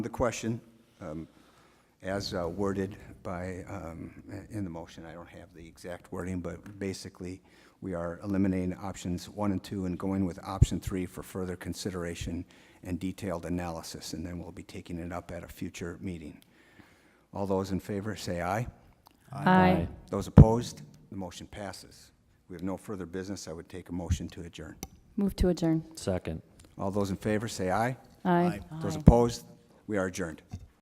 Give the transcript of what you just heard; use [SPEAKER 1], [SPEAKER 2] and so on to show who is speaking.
[SPEAKER 1] The question, um, as uh, worded by, um, in the motion, I don't have the exact wording, but basically, we are eliminating options one and two and going with option three for further consideration and detailed analysis, and then we'll be taking it up at a future meeting. All those in favor, say aye.
[SPEAKER 2] Aye.
[SPEAKER 1] Those opposed, the motion passes. We have no further business. I would take a motion to adjourn.
[SPEAKER 2] Move to adjourn.
[SPEAKER 3] Second.
[SPEAKER 1] All those in favor, say aye.
[SPEAKER 2] Aye.
[SPEAKER 1] Those opposed, we are adjourned.